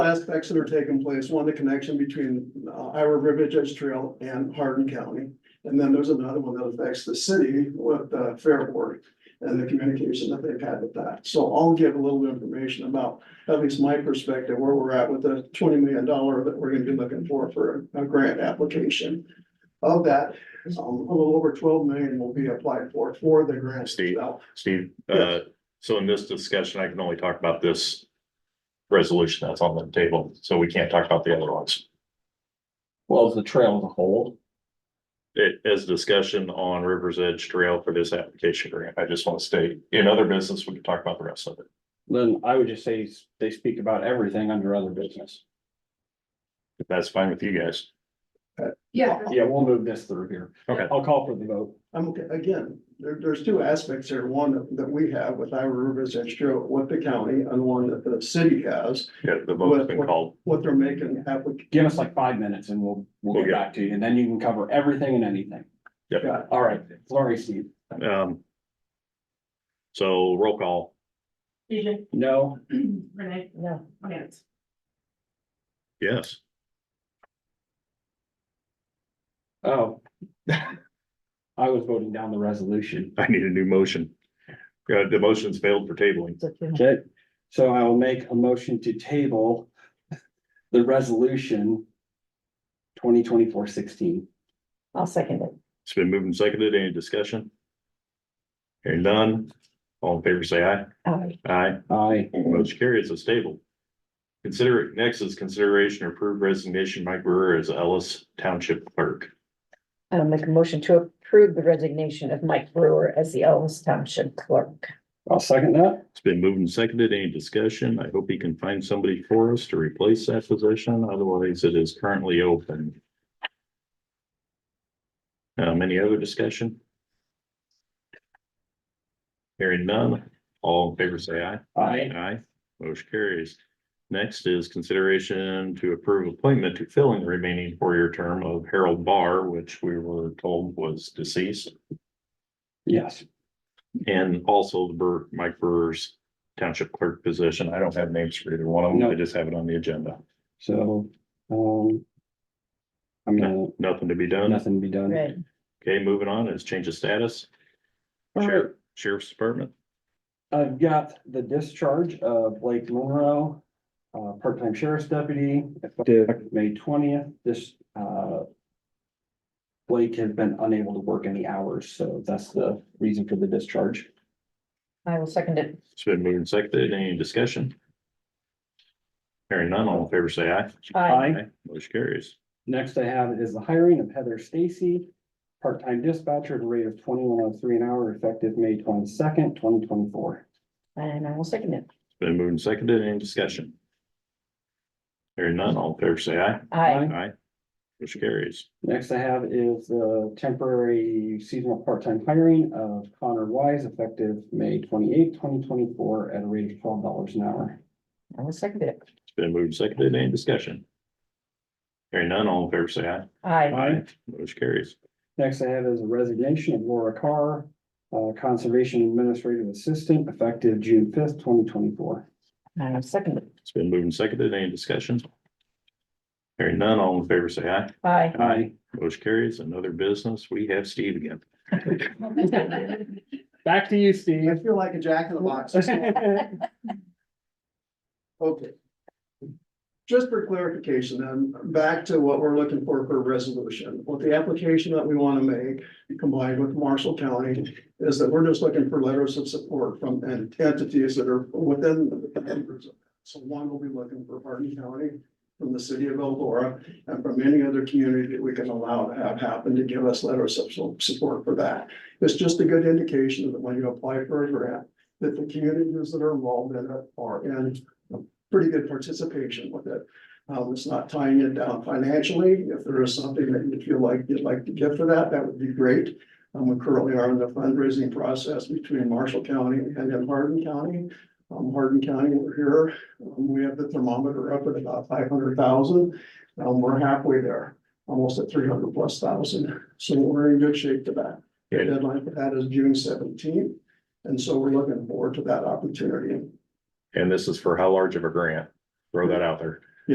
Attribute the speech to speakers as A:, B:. A: aspects that are taking place, one, the connection between uh, Iowa River Edge Trail and Hardin County. And then there's another one that affects the city with uh, Fairport and the communication that they've had with that. So I'll give a little information about, at least my perspective, where we're at with the twenty million dollar that we're gonna be looking for for a grant application. Of that, um, a little over twelve million will be applied for, for the grant
B: Steve.
A: itself.
B: Steve, uh, so in this discussion, I can only talk about this resolution that's on the table, so we can't talk about the other ones.
C: Well, is the trail as a whole,
B: It is discussion on River's Edge Trail for this application grant. I just want to state, in other business, we can talk about the rest of it.
C: then I would just say s- they speak about everything under other business.
B: If that's fine with you guys.
D: Yeah.
C: Yeah, we'll move this through here.
B: Okay.
C: I'll call for the vote.
A: I'm, okay. again, there, there's two aspects here, one that- that we have with Iowa Rivers Edge Trail with the county and one that the city has,
B: Yeah, the vote's been called.
A: what they're making application.
C: Give us like five minutes and we'll, we'll
B: Okay.
C: get back to you, and then you can cover everything and anything.
B: Yep.
C: All right, sorry, Steve.
B: Um. So roll call,
D: DJ,
C: No,
D: Renee? No. Lance?
B: yes.
C: oh. I was voting down the resolution.
B: I need a new motion. Uh, the motion's failed for tabling.
C: Okay, so I will make a motion to table the resolution 2024-16.
E: I'll second it.
B: It's been moved and seconded. Any discussion? Hearing none. All in favor, say aye.
E: Aye.
B: Aye.
C: Aye.
B: Motion carries as stable. Consider, next is consideration or approved resignation Mike Brewer as Ellis Township Clerk.
E: I'll make a motion to approve the resignation of Mike Brewer as the Ellis Township Clerk.
C: I'll second that.
B: It's been moved and seconded. Any discussion? I hope he can find somebody for us to replace that position. Otherwise, it is currently open. Um, any other discussion? Hearing none, all in favor say aye.
C: Aye.
B: Aye, motion carries. Next is consideration to approve appointment to filling the remaining four-year term of Harold Barr, which we were told was deceased.
C: Yes.
B: And also the Burr, Mike Burr's Township Clerk position. I don't have names for either one of them. I
C: No.
B: just have it on the agenda.
C: So, um. I'm gonna,
B: Nothing to be done.
C: nothing to be done.
E: Right.
B: Okay, moving on is change of status.
C: All right,
B: Sheriff- Sheriff's Department.
C: I've got the discharge of Blake Monroe, uh, part-time sheriff's deputy, effective May twentieth, this, uh. Blake has been unable to work any hours, so that's the reason for the discharge.
E: I will second it.
B: It's been moved and seconded. Any discussion? Hearing none, all in favor, say aye.
E: Aye.
B: Motion carries.
C: Next I have is the hiring of Heather Stacy, part-time dispatcher at a rate of twenty-one oh three an hour, effective May twenty-second, twenty twenty-four.
E: And I will second it.
B: Been moved and seconded. Any discussion? Hearing none, all in favor, say aye.
E: Aye.
B: Aye. Motion carries.
C: Next I have is the temporary seasonal part-time hiring of Connor Wise effective May twenty-eighth, twenty twenty-four at a rate of twelve dollars an hour.
E: I will second it.
B: It's been moved and seconded. Any discussion? Hearing none, all in favor, say aye.
E: Aye.
B: Motion carries.
C: Next I have is a resignation of Laura Carr, uh, Conservation Administrative Assistant effective June fifth, twenty twenty-four.
E: I will second it.
B: It's been moved and seconded. Any discussion? Hearing none, all in favor, say aye.
E: Aye.
C: Aye.
B: Motion carries. Another business. We have Steve again.
C: Back to you,
A: I
C: Steve.
A: feel like a jack in the box. Okay. Just for clarification, then, back to what we're looking for for a resolution, what the application that we want to make combined with Marshall County is that we're just looking for letters of support from ent- entities that are within. the members of that. So one will be looking for Hardin County, from the city of Eldora, and from any other community that we can allow to have happen to give us letters of su- support for that. It's just a good indication that when you apply for a grant, that the communities that are involved in it are in pretty good participation with it. Um, it's not tying it down financially. If there is something that you feel like you'd like to give for that, that would be great. Um, we currently are in the fundraising process between Marshall County and then Hardin County. Um, Hardin County, we're here. Um, we have the thermometer up at about five hundred thousand. Um, we're halfway there, almost at three hundred plus thousand. So we're in good shape to that. The
B: Yeah.
A: deadline for that is June seventeenth. And so we're looking forward to that opportunity.
B: And this is for how large of a grant? Throw that out there.